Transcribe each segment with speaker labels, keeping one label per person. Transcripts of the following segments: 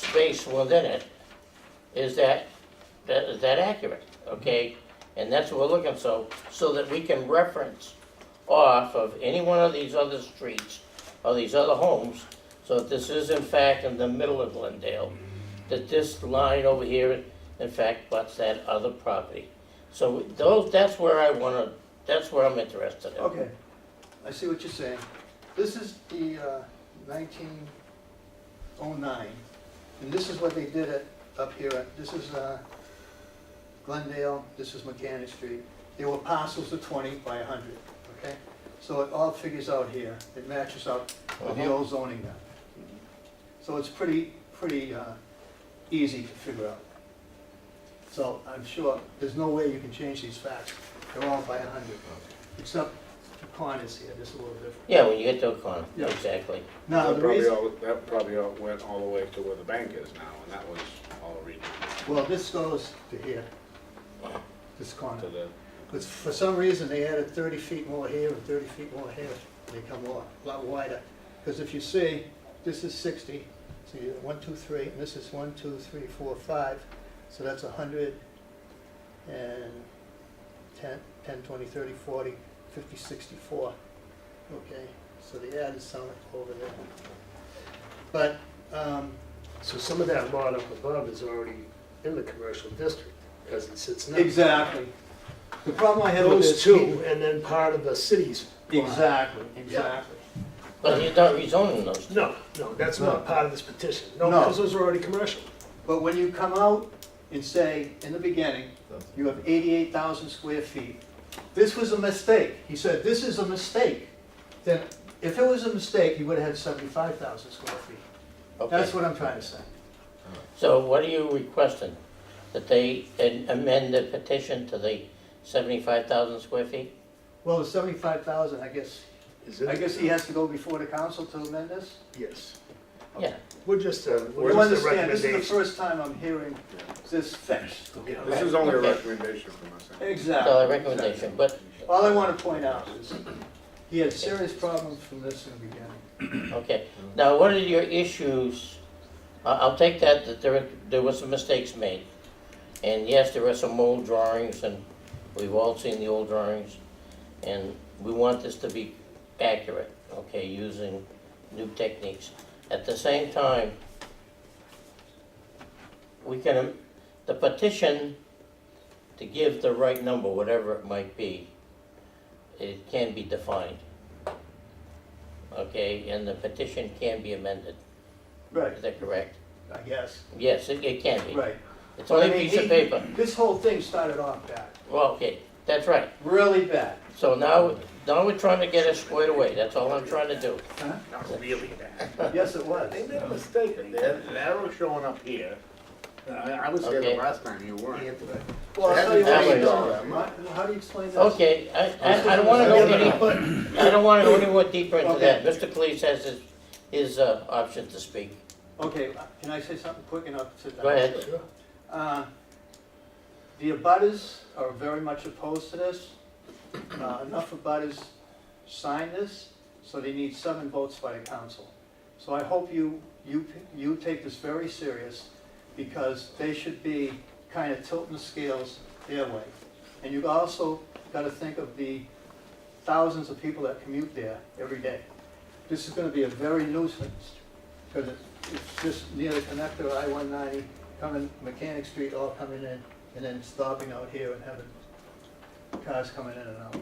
Speaker 1: space within it, is that, that, is that accurate, okay? And that's what we're looking, so, so that we can reference off of any one of these other streets or these other homes, so that this is in fact in the middle of Glendale, that this line over here, in fact, butts that other property. So those, that's where I wanna, that's where I'm interested in.
Speaker 2: Okay, I see what you're saying. This is the uh, 1909, and this is what they did it up here. at- This is uh, Glendale, this is Mechanic Street. They were parcels of 20 by 100, okay? So it all figures out here, it matches up with the
Speaker 1: Uh-huh.
Speaker 2: old zoning now. So it's pretty, pretty uh, easy to figure out. So I'm sure, there's no way you can change these facts. They're all by 100. Except the corners here, just a little different.
Speaker 1: Yeah, when you get to a corner,
Speaker 2: Yeah.
Speaker 1: exactly.
Speaker 2: Now,
Speaker 3: That
Speaker 2: the
Speaker 3: probably
Speaker 2: reason,
Speaker 3: all, that probably all went all the way to where the bank is now, and that was all regional
Speaker 2: well, this goes to here, this corner.
Speaker 3: to the,
Speaker 2: Because for some reason, they added thirty feet more here and thirty feet more here, and they come a lot, lot wider. Because if you see, this is sixty, so you, one, two, three, and this is one, two, three, four, five, so that's a hundred and ten, ten, twenty, thirty, forty, fifty, sixty-four. Okay, so they added some over there. But, um,
Speaker 4: So some of that lot up above is already in the commercial district, as it sits now.
Speaker 2: Exactly. The problem I have with
Speaker 4: Those
Speaker 2: this.
Speaker 4: two, and then part of the city's lot.
Speaker 2: Exactly, exactly.
Speaker 1: But you're not rezoning those.
Speaker 4: No, no, that's not part of this petition. No,
Speaker 2: No.
Speaker 4: because those are already commercial.
Speaker 2: But when you come out and say, in the beginning, you have eighty-eight thousand square feet, this was a mistake, he said, this is a mistake, then if it was a mistake, he would have had seventy-five thousand square feet.
Speaker 1: Okay,
Speaker 2: That's what I'm trying to say.
Speaker 1: so what are you requesting? That they an- amend the petition to the seventy-five thousand square feet?
Speaker 2: Well, the seventy-five thousand, I guess,
Speaker 4: Is it?
Speaker 2: I guess he has to go before the council to amend this?
Speaker 4: Yes.
Speaker 1: Yeah.
Speaker 4: We're just, uh, we're
Speaker 2: You
Speaker 4: just a
Speaker 2: understand, this is the
Speaker 4: recommendation.
Speaker 2: first time I'm hearing this fix.
Speaker 3: this is only a
Speaker 1: Okay.
Speaker 3: recommendation from us. anyway.
Speaker 2: Exactly.
Speaker 1: So a recommendation, but,
Speaker 2: All I wanna point out is, he had serious problems from this in the beginning.
Speaker 1: okay. Now, what are your issues? I- I'll take that, that there, there were some mistakes made. And yes, there are some old drawings, and we've all seen the old drawings. And we want this to be accurate, okay, using new techniques. At the same time, we can, um, the petition to give the right number, whatever it might be, it can be defined. Okay, and the petition can be amended,
Speaker 2: Right,
Speaker 1: is that correct?
Speaker 2: I guess,
Speaker 1: Yes, it, it can be.
Speaker 2: right.
Speaker 1: It's only
Speaker 2: But I
Speaker 1: a
Speaker 2: mean,
Speaker 1: piece of
Speaker 2: he-
Speaker 1: paper.
Speaker 2: This whole thing started off bad,
Speaker 1: Well, okay, that's right.
Speaker 2: really bad.
Speaker 1: So now, now we're trying to get it squared away, that's all I'm trying to do.
Speaker 5: Not really that.
Speaker 2: Yes, it was.
Speaker 3: They made a mistake, and they're, they're showing up here. Uh, I, I was here
Speaker 1: Okay.
Speaker 3: the last time, you weren't.
Speaker 2: Well, I'll
Speaker 3: It
Speaker 2: tell you
Speaker 1: hasn't
Speaker 2: what,
Speaker 1: happened
Speaker 3: all that much.
Speaker 2: Ma- how do you explain this?
Speaker 1: Okay, I, I, I don't wanna go any, I don't wanna go any more deeper into that.
Speaker 2: Okay.
Speaker 1: Mr. Cleese has his, his, uh, option to speak.
Speaker 2: Okay, can I say something quick enough to?
Speaker 1: Go ahead.
Speaker 2: Uh, The abutters are very much opposed to this. Uh, Enough abutters signed this, so they need seven votes by the council. So I hope you, you, you take this very serious, because they should be kind of tilting the scales their way. And you've also got to think of the thousands of people that commute there every day. This is going to be a very nuisance, because it's just near the connector, I-190, coming Mechanic Street, all coming in, and then stopping out here and having cars coming in and out.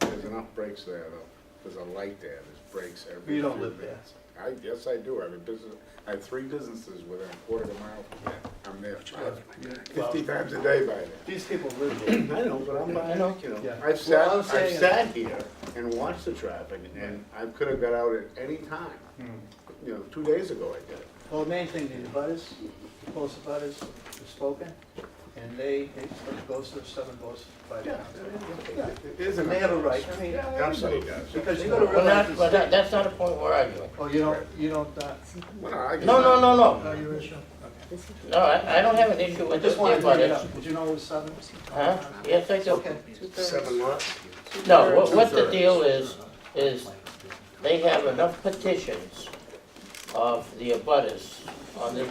Speaker 3: There's enough breaks there, though. There's a light there, there's breaks every.
Speaker 2: You don't
Speaker 3: few
Speaker 2: live there.
Speaker 3: minutes. I, yes, I do. I have a business, I have three businesses within a quarter of a mile from there. I'm there five- fifty times a day by then.
Speaker 2: These people live there.
Speaker 3: I know, but I'm
Speaker 1: I
Speaker 3: not,
Speaker 1: know.
Speaker 3: you know,
Speaker 2: Yeah.
Speaker 3: I've
Speaker 2: Well,
Speaker 3: sat,
Speaker 2: I'm
Speaker 3: I've
Speaker 2: saying-
Speaker 3: sat here and watched the traffic, and I could have got out at any time. You know, two days ago I did.
Speaker 2: Well, the main thing, the butters, the close butters have spoken, and they, it goes to seven votes by the council.
Speaker 3: It is an-
Speaker 2: And they have a right, I mean,
Speaker 3: Absolutely does.
Speaker 2: because you gotta
Speaker 1: We're
Speaker 2: realize.
Speaker 1: not, we're not- that's not a point we're arguing.
Speaker 2: Oh, you don't, you don't, uh,
Speaker 3: Well, I get
Speaker 1: No, no,
Speaker 3: that.
Speaker 1: no, no,
Speaker 2: know your issue?
Speaker 1: no, I, I don't have an issue
Speaker 2: I
Speaker 1: with this,
Speaker 2: just wanted to bring it
Speaker 1: but it's,
Speaker 2: up, did you know it was seven?
Speaker 1: huh? Yes, I do.
Speaker 2: Okay,
Speaker 4: Seven lots.
Speaker 1: No, what, what the deal is, is they have enough petitions of the abutters on this